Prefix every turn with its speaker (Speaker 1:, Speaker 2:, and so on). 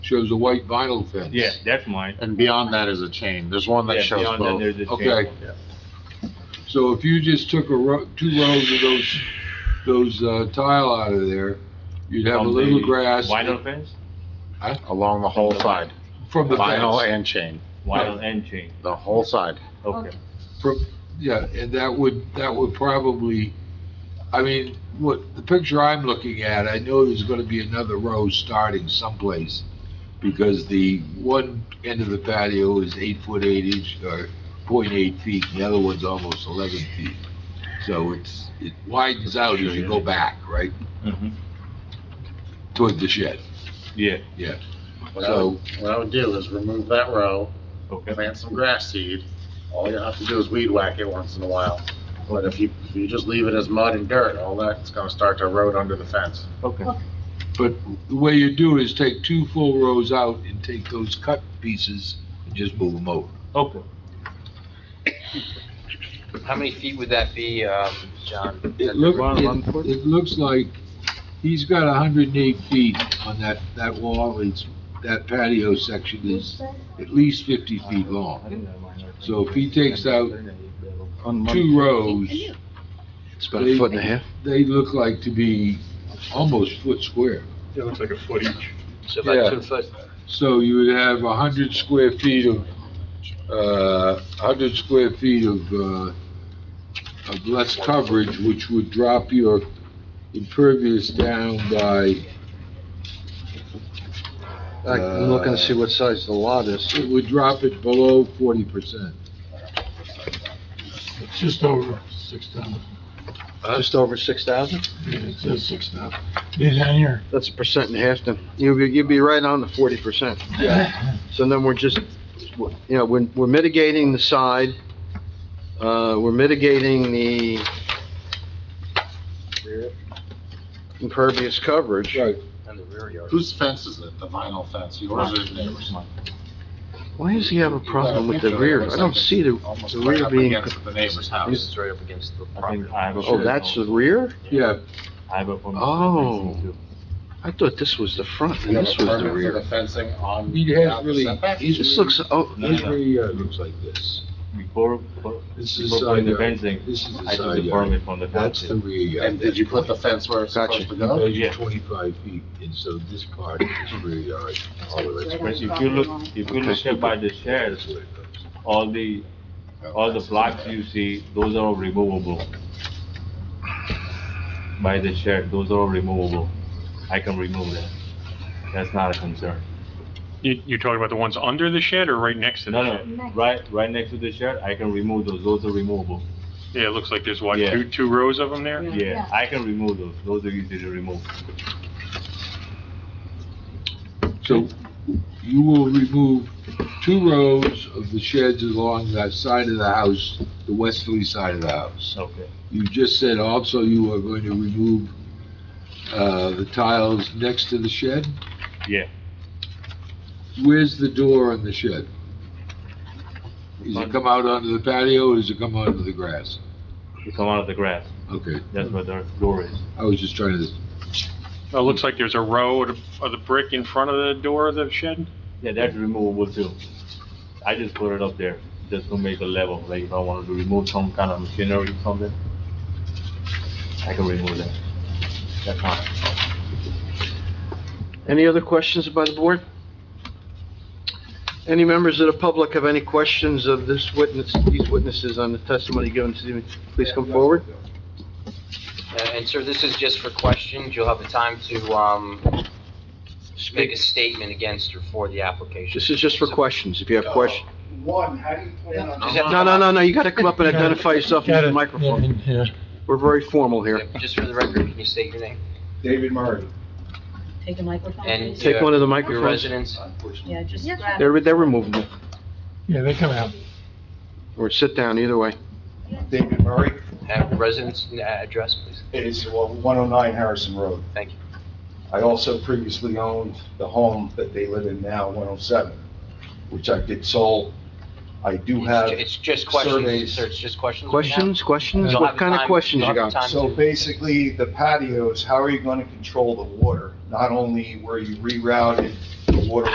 Speaker 1: shows a white vinyl fence.
Speaker 2: Yeah, that's mine.
Speaker 3: And beyond that is a chain. There's one
Speaker 2: Yeah,
Speaker 3: that shows
Speaker 2: beyond that,
Speaker 3: both.
Speaker 2: there's a chain.
Speaker 1: Okay.
Speaker 2: Yeah.
Speaker 1: So if you just took a row, two rows of those, those uh, tile out of there, you'd have a
Speaker 2: From
Speaker 1: little
Speaker 2: the
Speaker 1: grass
Speaker 2: Vinyl fence,
Speaker 3: Along the whole side,
Speaker 1: from the
Speaker 3: vinyl
Speaker 1: fence.
Speaker 3: and chain,
Speaker 2: vinyl and chain,
Speaker 3: the whole side.
Speaker 2: okay.
Speaker 1: From- Yeah, and that would, that would probably, I mean, what, the picture I'm looking at, I know there's gonna be another row starting someplace because the one end of the patio is eight foot eight inch, or point eight feet, and the other one's almost eleven feet. So it's, it widens out as you go back, right,
Speaker 2: Mhm.
Speaker 1: toward the shed.
Speaker 2: Yeah,
Speaker 4: What I would,
Speaker 1: So-
Speaker 4: what I would do is remove that row,
Speaker 2: okay,
Speaker 4: plant some grass seed. All you have to do is weed whack it once in a while. But if you, if you just leave it as mud and dirt, all that's gonna start to erode under the fence.
Speaker 2: okay.
Speaker 1: But the way you do is take two full rows out and take those cut pieces and just move them over.
Speaker 2: Okay.
Speaker 5: How many feet would that be, um, John?
Speaker 1: It look,
Speaker 2: Ron, one
Speaker 1: it,
Speaker 2: foot?
Speaker 1: it looks like he's got hundred and eight feet on that, that wall, it's, that patio section is at least fifty feet long. So if he takes out Two rows,
Speaker 3: It's
Speaker 1: about a foot and a half. they look like to be almost foot square.
Speaker 6: It looks like a foot each.
Speaker 5: So
Speaker 1: Yeah.
Speaker 5: about two foot,
Speaker 1: So you would have a hundred square feet of, uh, hundred square feet of, uh, of less coverage, which would drop your impervious down by, I'm looking to see
Speaker 3: what size the lot is.
Speaker 1: uh, it would drop it below forty percent.
Speaker 6: It's just over six thousand.
Speaker 3: Just over six thousand?
Speaker 6: It says six thousand. These on here.
Speaker 3: That's a percent and a half then. You'd be, you'd be right on the forty percent. So then we're just, you know, we're, we're mitigating the side, uh, we're mitigating the impervious coverage.
Speaker 1: Right,
Speaker 5: and the rear yard.
Speaker 4: Whose fence is it? The vinyl fence? Yours or the neighbor's?
Speaker 3: Why does he have a problem with the rear? I don't see the,
Speaker 4: Almost
Speaker 3: the
Speaker 4: right
Speaker 3: rear
Speaker 4: up
Speaker 3: being,
Speaker 4: against the neighbor's
Speaker 5: This
Speaker 4: house.
Speaker 5: is right up against the
Speaker 2: I
Speaker 5: property.
Speaker 2: think I have a.
Speaker 3: oh, that's the rear?
Speaker 1: yeah,
Speaker 2: I have a permit.
Speaker 3: Oh. I thought this was the front
Speaker 4: You
Speaker 3: and
Speaker 4: have
Speaker 3: this
Speaker 4: a
Speaker 3: was the
Speaker 4: permit for
Speaker 3: rear.
Speaker 4: the fencing on.
Speaker 1: he has
Speaker 4: without the
Speaker 1: really,
Speaker 4: setback?
Speaker 1: he's
Speaker 3: This looks, oh,
Speaker 2: No,
Speaker 1: His
Speaker 2: no.
Speaker 1: rear yard looks like this.
Speaker 2: Before, before
Speaker 1: This is
Speaker 2: before
Speaker 1: side
Speaker 2: putting the
Speaker 1: yard,
Speaker 2: fencing,
Speaker 1: this is the
Speaker 2: I took
Speaker 1: side
Speaker 2: the
Speaker 1: yard.
Speaker 2: permit from the
Speaker 1: That's the
Speaker 2: council.
Speaker 1: rear yard.
Speaker 4: And did you put the fence where it's
Speaker 3: Gotcha.
Speaker 4: supposed to go?
Speaker 1: Those
Speaker 2: Oh, Yeah.
Speaker 1: are twenty-five feet, and so this part is rear yard, all of it's
Speaker 2: But if you look, if you look at by the shares, all the, all the blocks you see, those are all removable. By the shed, those are all removable. I can remove that. That's not a concern.
Speaker 6: You, you're talking about the ones under the shed or right next to
Speaker 2: No,
Speaker 6: the shed?
Speaker 2: no, right, right next to the shed, I can remove those, those are removable.
Speaker 6: Yeah, it looks like there's what,
Speaker 2: Yeah.
Speaker 6: two, two rows of them there?
Speaker 2: Yeah, I can remove those, those are easy to remove.
Speaker 1: So you will remove two rows of the sheds along that side of the house, the westerly side of the house.
Speaker 2: Okay.
Speaker 1: You just said also you are going to remove, uh, the tiles next to the shed?
Speaker 2: Yeah.
Speaker 1: Where's the door on the shed? Does it come out onto the patio or does it come onto the grass?
Speaker 2: You come out of the grass,
Speaker 1: Okay,
Speaker 2: that's where the door is.
Speaker 1: I was just trying to,
Speaker 6: It looks like there's a row of, the- of the brick in front of the door of the shed?
Speaker 2: Yeah, that's removable too. I just put it up there, just to make a level, like if I wanted to remove some kind of machinery or something, I can remove that. That's not,
Speaker 3: any other questions by the board? Any members of the public have any questions of this witness, these witnesses on the testimony given to me? Please come forward.
Speaker 5: Uh, And sir, this is just for questions. You'll have the time to, um, make a statement against or for the application.
Speaker 3: This is just for questions, if you have questions.
Speaker 7: One, how do you plan on?
Speaker 5: Just have to-
Speaker 3: No, no, no, no, you gotta come up and identify yourself into the microphone.
Speaker 6: Yeah.
Speaker 3: We're very formal here.
Speaker 5: Yeah, Just for the record, can you state your name?
Speaker 7: David Murray.
Speaker 8: Take a microphone,
Speaker 5: And-
Speaker 8: please.
Speaker 3: Take one of the
Speaker 5: Your
Speaker 3: microphones.
Speaker 5: residence?
Speaker 8: Yeah, just grab it.
Speaker 3: They're, they're removable,
Speaker 6: Yeah, they come out.
Speaker 3: or sit down, either way.
Speaker 7: David Murray.
Speaker 5: Uh, Residence and, uh, address, please.
Speaker 7: It is uh, 109 Harrison Road.
Speaker 5: Thank you.
Speaker 7: I also previously owned the home that they live in now, 107, which I did sold. I do
Speaker 5: It's
Speaker 7: have,
Speaker 5: ju- It's just questions,
Speaker 7: surveys.
Speaker 5: sir, it's just questions. we have.
Speaker 3: Questions, questions?
Speaker 5: You'll have
Speaker 3: What
Speaker 5: the
Speaker 3: kind of
Speaker 5: time-
Speaker 3: questions
Speaker 5: you'll
Speaker 3: you
Speaker 5: have the
Speaker 3: got?
Speaker 5: time
Speaker 7: so
Speaker 5: to-
Speaker 7: basically, the patios, how are you going to control the water? Not only were you rerouted the water